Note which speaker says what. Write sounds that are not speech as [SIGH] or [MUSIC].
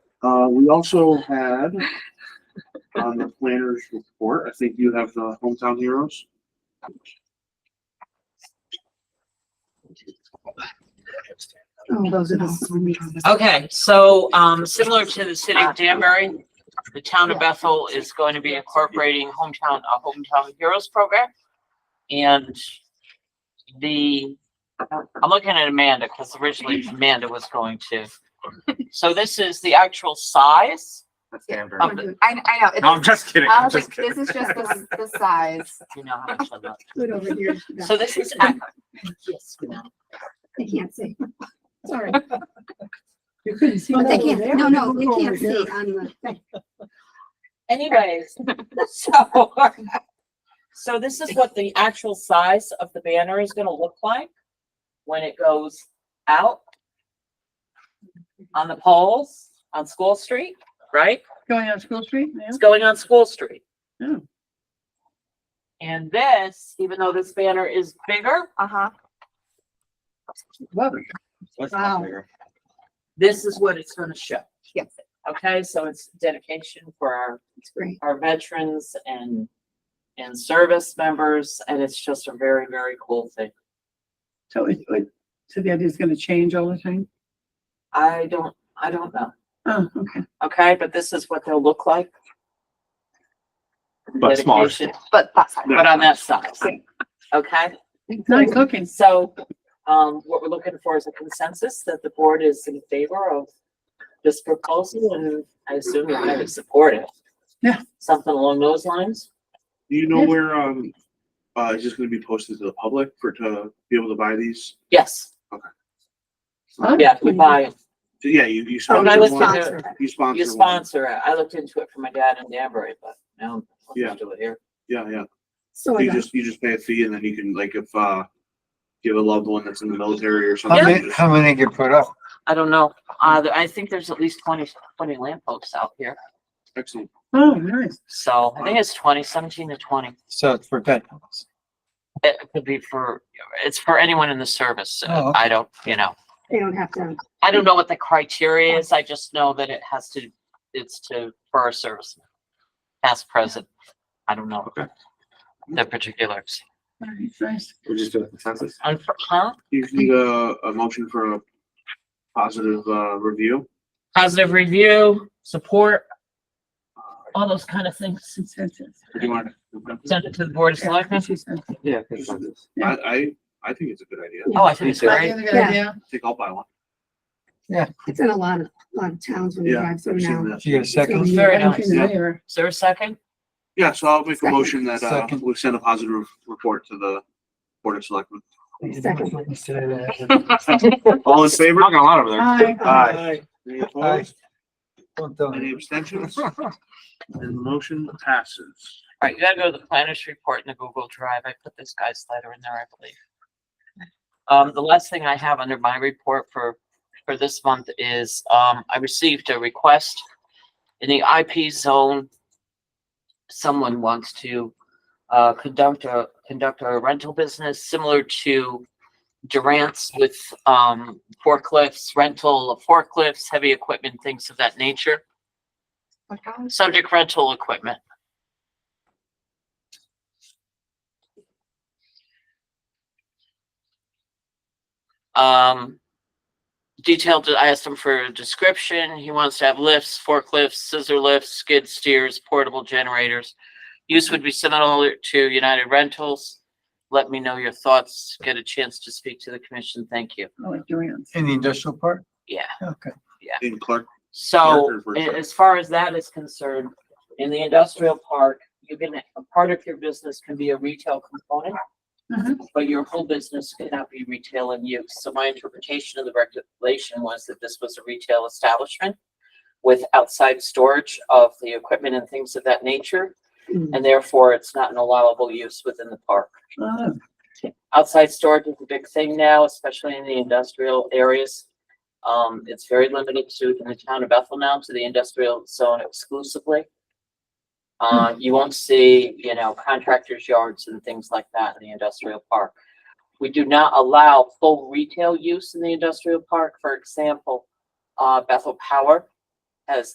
Speaker 1: Uh, we also had on the planners report, I think you have the hometown heroes.
Speaker 2: Those are the.
Speaker 3: Okay, so, um, similar to the city of Danbury, the town of Bethel is going to be incorporating hometown, a hometown heroes program. And the, I'm looking at Amanda, because originally Amanda was going to. So this is the actual size
Speaker 4: That's Amber.
Speaker 3: of
Speaker 4: No,
Speaker 3: the,
Speaker 5: I, I know. it's-
Speaker 4: I'm just kidding.
Speaker 5: I
Speaker 4: I'm
Speaker 5: was
Speaker 4: just
Speaker 5: like,
Speaker 4: kidding.
Speaker 5: this is just the,
Speaker 4: [LAUGHS]
Speaker 5: the size.
Speaker 3: you know, how much I'm not-
Speaker 2: Good over here.
Speaker 3: so this is. Yes,
Speaker 2: I can't see. [LAUGHS] Sorry.
Speaker 6: You couldn't see.
Speaker 2: But
Speaker 6: that
Speaker 2: they
Speaker 6: over there.
Speaker 2: can't, no, no, we
Speaker 6: Over
Speaker 2: can't see
Speaker 6: here.
Speaker 2: on the.
Speaker 3: Anyways, [LAUGHS] so, [LAUGHS] so this is what the actual size of the banner is gonna look like when it goes out on the poles on School Street, right?
Speaker 6: Going on School Street, yeah.
Speaker 3: It's going on School Street.
Speaker 6: Yeah.
Speaker 3: And this, even though this banner is bigger,
Speaker 5: Uh-huh.
Speaker 6: Love it.
Speaker 4: Let's
Speaker 2: Wow.
Speaker 4: not figure.
Speaker 3: this is what it's gonna show.
Speaker 5: Yes.
Speaker 3: Okay, so it's dedication for our
Speaker 2: It's great.
Speaker 3: our veterans and, and service members, and it's just a very, very cool thing.
Speaker 6: So it, it, so the idea's gonna change all the time?
Speaker 3: I don't, I don't know,
Speaker 6: Oh, okay.
Speaker 3: okay, but this is what they'll look like.
Speaker 4: But smaller.
Speaker 3: Dedication,
Speaker 5: But that's.
Speaker 3: But on that size, okay?
Speaker 6: It's not cooking.
Speaker 3: So, um, what we're looking for is a consensus that the board is in favor of this proposal, and I assume you're gonna support it.
Speaker 6: Yeah.
Speaker 3: Something along those lines?
Speaker 1: Do you know
Speaker 6: Yes.
Speaker 1: where, um, uh, is this gonna be posted to the public for, to be able to buy these?
Speaker 3: Yes, yeah, we buy,
Speaker 1: Yeah, you, you
Speaker 3: Oh, no,
Speaker 1: sponsor
Speaker 3: I was
Speaker 1: one,
Speaker 3: thinking-
Speaker 1: you
Speaker 3: it. you
Speaker 1: sponsor one.
Speaker 3: sponsor it, I looked into it for my dad in Danbury, but now I'm
Speaker 1: Yeah.
Speaker 3: gonna do it here.
Speaker 1: Yeah, yeah.
Speaker 3: Oh,
Speaker 2: So I
Speaker 1: You
Speaker 2: got
Speaker 1: just, you just pay a fee and then you can, like, if, uh, you have a loved one that's in the military or
Speaker 7: How
Speaker 1: something.
Speaker 7: many,
Speaker 1: just-
Speaker 7: how many get put up?
Speaker 3: I don't know, uh, I think there's at least twenty, twenty lampposts out here,
Speaker 1: Excellent.
Speaker 6: Oh, nice.
Speaker 3: so I think it's twenty, seventeen to twenty.
Speaker 7: So it's for veterans.
Speaker 3: It could be for, it's for anyone in the service.
Speaker 7: Oh,
Speaker 3: Uh,
Speaker 7: okay.
Speaker 3: I don't, you know,
Speaker 2: they don't have to,
Speaker 3: I don't know what the criteria is. I just know that it has to, it's to, for our service. Past, present. I don't know.
Speaker 4: Okay.
Speaker 3: The particulars.
Speaker 6: Nice, nice.
Speaker 4: We're just doing consensus.
Speaker 3: And for- huh?
Speaker 1: You need a, a motion for a positive, uh, review.
Speaker 3: Positive review, support, all those kind of things.
Speaker 6: Consensus.
Speaker 1: Or Uh, do you want to-
Speaker 3: Send it to the board of selectmen.
Speaker 6: Consensus.
Speaker 4: Yeah, consensus.
Speaker 1: I, I, I think it's a good idea.
Speaker 3: Oh, I think it's
Speaker 6: Right, you have
Speaker 3: great.
Speaker 6: a good
Speaker 2: Yeah.
Speaker 6: idea?
Speaker 1: I think I'll buy one.
Speaker 2: it's in a lot of, lot of towns when you
Speaker 1: Yeah.
Speaker 2: drive through
Speaker 1: I've seen
Speaker 2: now.
Speaker 1: that.
Speaker 7: Do you get a
Speaker 2: It's
Speaker 7: second?
Speaker 2: gonna be-
Speaker 3: Very
Speaker 6: I don't
Speaker 3: nice.
Speaker 6: think they're-
Speaker 3: Is there a second?
Speaker 1: Yeah, so I'll make a motion that, uh,
Speaker 7: Second.
Speaker 1: we send a positive report to the Board of Selectmen.
Speaker 2: Second.
Speaker 1: All in favor?
Speaker 4: Talking a lot over there.
Speaker 6: Hi.
Speaker 1: Aye. Any
Speaker 7: Aye.
Speaker 1: opposed?
Speaker 7: Don't tell
Speaker 1: Any
Speaker 7: me.
Speaker 1: abstentions? And the motion passes.
Speaker 3: All right, you gotta go to the planner's report in the Google Drive. I put this guy's letter in there, I believe. Um, the last thing I have under my report for, for this month is, um, I received a request in the IP zone. Someone wants to, uh, conduct a, conduct a rental business similar to Durant's with, um, forklifts, rental of forklifts, heavy equipment, things of that nature. Subject rental equipment. Um, detailed, I asked him for a description. He wants to have lifts, forklifts, scissor lifts, skid steers, portable generators. Use would be similar to United Rentals. Let me know your thoughts. Get a chance to speak to the commission. Thank you.
Speaker 6: I like Joanne's.
Speaker 7: In the industrial park?
Speaker 3: Yeah.
Speaker 7: Okay.
Speaker 1: In Clark,
Speaker 3: So
Speaker 1: Marker for
Speaker 3: a-
Speaker 1: sure.
Speaker 3: as far as that is concerned, in the industrial park, you can, a part of your business can be a retail component.
Speaker 6: Mhm.
Speaker 3: But your whole business cannot be retail in use. So my interpretation of the regulation was that this was a retail establishment with outside storage of the equipment and things of that nature,
Speaker 2: Mm.
Speaker 3: and therefore it's not an allowable use within the park.
Speaker 6: Oh,
Speaker 3: Outside storage is a big thing now, especially in the industrial areas. Um, it's very limited to in the town of Bethel now to the industrial zone exclusively. Uh, you won't see, you know, contractors yards and things like that in the industrial park. We do not allow full retail use in the industrial park. For example, uh, Bethel Power has